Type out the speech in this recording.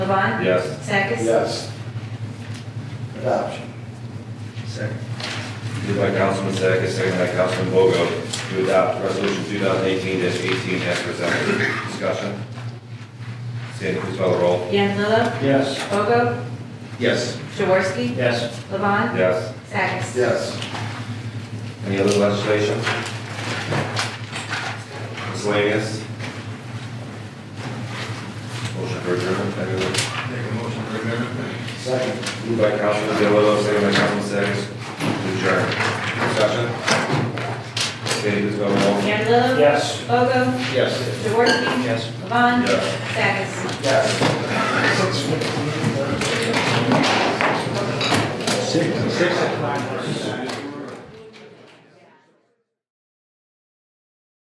Levon. Yes. Sackis. Yes. Adoption. Second. Moved by Councilman Zagat, second by Councilman Bogo, to adopt resolution two thousand eighteen eighteen as presented. Discussion? Sandy, please call the roll. Lilo, Yes. Bogo, Yes. Jaworski, Yes. Levon, Yes. Sackis. Yes. Any other legislation? Miscellaneous? Motion for adjournment, anyone? Make a motion for amendment. Second. Moved by Councilman Deloitte, second by Councilman Zagat, to adjourn. Discussion? Sandy, please call the roll. Lilo, Yes. Bogo, Yes. Jaworski. Yes. Levon. Yes. Sackis. Yes. Six, six o'clock.